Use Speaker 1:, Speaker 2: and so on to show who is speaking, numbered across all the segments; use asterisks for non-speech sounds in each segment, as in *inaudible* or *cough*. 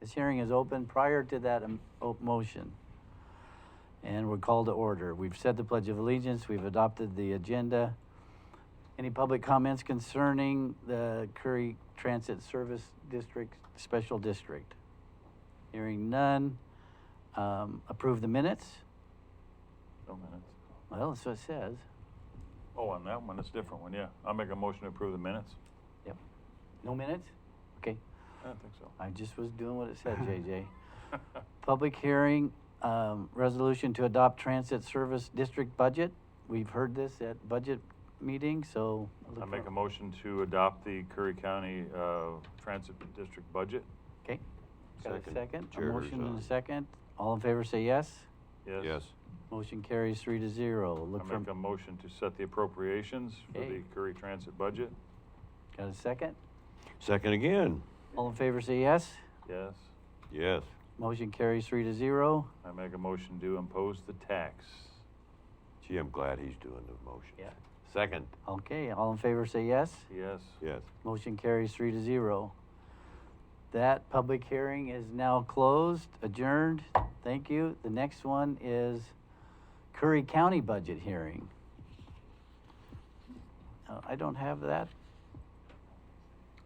Speaker 1: This hearing is open prior to that um, o- motion. And we're called to order. We've said the Pledge of Allegiance, we've adopted the agenda. Any public comments concerning the Curry Transit Service District, Special District? Hearing none. Um, Approve the minutes?
Speaker 2: No minutes.
Speaker 1: Well, that's what it says.
Speaker 2: Oh, on that one, it's a different one, yeah. I'll make a motion to approve the minutes.
Speaker 1: Yep. No minutes? Okay.
Speaker 2: I don't think so. *laughs*
Speaker 1: I just was doing what it said, JJ. Public hearing, um, resolution to adopt transit service district budget. We've heard this at budget meeting, so. I'll look
Speaker 2: I make
Speaker 1: for-
Speaker 2: a motion to adopt the Curry County, uh, Transit District budget.
Speaker 1: Okay. Got a
Speaker 3: Second.
Speaker 1: second? A
Speaker 3: Chair
Speaker 1: motion and a
Speaker 3: Herzog.
Speaker 1: second. All in favor say yes.
Speaker 2: Yes.
Speaker 3: Yes.
Speaker 1: Motion carries three to zero.
Speaker 2: I
Speaker 1: Look for,
Speaker 2: make a motion to set the appropriations for
Speaker 1: Okay.
Speaker 2: the Curry Transit budget.
Speaker 1: got a second?
Speaker 3: Second again.
Speaker 1: All in favor say yes.
Speaker 2: Yes.
Speaker 3: Yes.
Speaker 1: Motion carries three to zero.
Speaker 2: I make a motion to impose the tax.
Speaker 3: Gee, I'm glad he's doing the motion.
Speaker 1: Yeah.
Speaker 3: Second.
Speaker 1: Okay, all in favor say yes.
Speaker 2: Yes.
Speaker 3: Yes.
Speaker 1: Motion carries three to zero. That public hearing is now closed, adjourned. Thank you. The next one is Curry County budget hearing. Uh, I don't have that.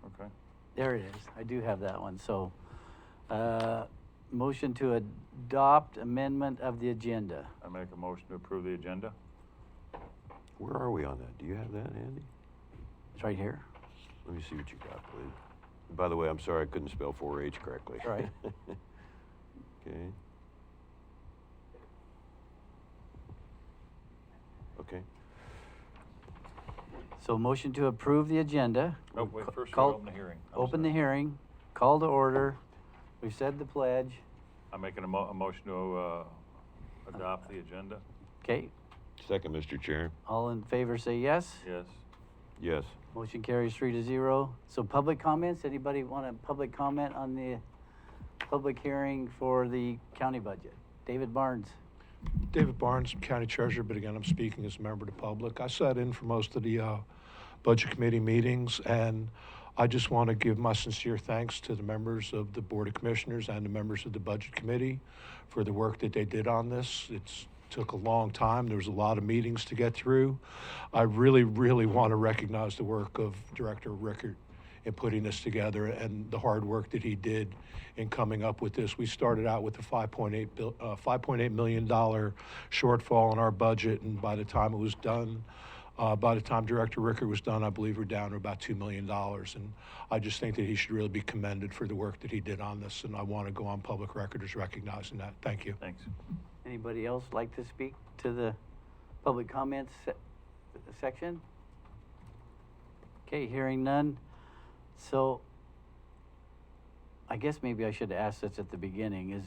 Speaker 2: Okay.
Speaker 1: There it is. I do have that one. So, uh, motion to adopt amendment of the agenda.
Speaker 2: I make a motion to approve the agenda.
Speaker 3: Where are we on that? Do you have that, Andy?
Speaker 1: It's right here.
Speaker 3: Let me see what you got, please. By the way, I'm sorry I couldn't spell 4-H correctly.
Speaker 1: Right.
Speaker 3: *laughs* okay. Okay.
Speaker 1: So, motion to approve the agenda.
Speaker 2: Oh, wait, first we
Speaker 1: Call-
Speaker 2: open the hearing. I'm
Speaker 1: Open the
Speaker 2: sorry.
Speaker 1: hearing, call to order. We've said the pledge.
Speaker 2: I'm making a mo- a motion to, uh, adopt the agenda.
Speaker 1: Okay,
Speaker 3: Second, Mr. Chair.
Speaker 1: all in favor say yes.
Speaker 2: Yes.
Speaker 3: Yes.
Speaker 1: Motion carries three to zero. So public comments, anybody want a public comment on the public hearing for the county budget? David Barnes.
Speaker 4: David Barnes, County Treasurer, but again, I'm speaking as a member of the public. I sat in for most of the uh, Budget Committee meetings, and I just want to give my sincere thanks to the members of the Board of Commissioners and the members of the Budget Committee for the work that they did on this. It's took a long time. There was a lot of meetings to get through. I really, really want to recognize the work of Director Rickard in putting this together and the hard work that he did in coming up with this. We started out with a 5.8 bill, uh, 5.8 million dollar shortfall in our budget, and by the time it was done, uh, by the time Director Ricker was done, I believe we're down to about two million dollars. And I just think that he should really be commended for the work that he did on this. And I want to go on public record as recognizing that. Thank you.
Speaker 2: Thanks.
Speaker 1: Anybody else like to speak to the public comments se- section? Okay, hearing none. So I guess maybe I should ask this at the beginning is,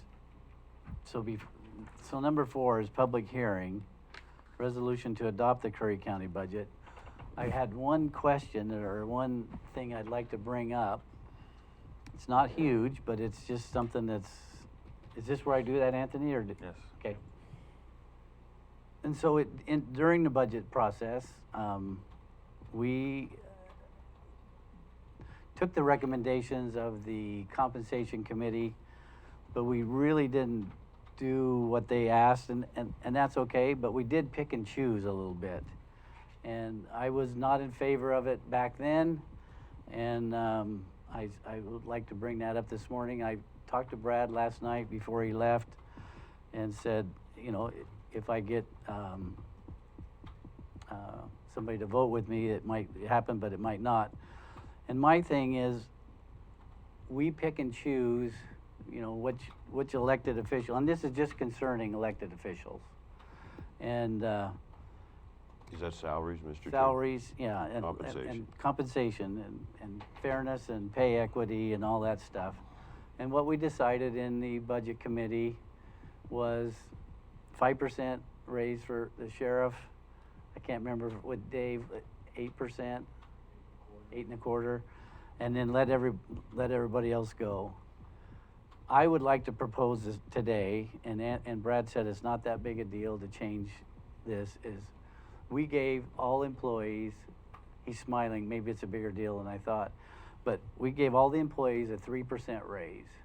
Speaker 1: so be, so number four is public hearing, resolution to adopt the Curry County budget. I had one question or one thing I'd like to bring up. It's not huge, but it's just something that's, is this where I do that, Anthony, or? did-
Speaker 2: Yes.
Speaker 1: Okay. And so it, in, during the budget process, um, we uh, took the recommendations of the compensation committee, but we really didn't do what they asked, and, and, and that's okay, but we did pick and choose a little bit. And I was not in favor of it back then, and, um, I, I would like to bring that up this morning. I talked to Brad last night before he left, and said, you know, i- if I get um, uh, somebody to vote with me, it might happen, but it might not. And my thing is, we pick and choose, you know, which which elected official, and this is just concerning elected officials, and uh,
Speaker 3: Is that salaries, Mr. Chair?
Speaker 1: salaries, yeah, and- and,
Speaker 3: Compensation.
Speaker 1: and compensation, and, and fairness, and pay equity, and all that stuff. And what we decided in the budget committee was five percent raise for the sheriff. I can't remember what Dave, eight percent, eight and a quarter, and then let every, let everybody else go. I would like to propose this today, and, An- and Brad said it's not that big a deal to change this, is we gave all employees, he's smiling, maybe it's a bigger deal than I thought, but we gave all the employees a three percent raise.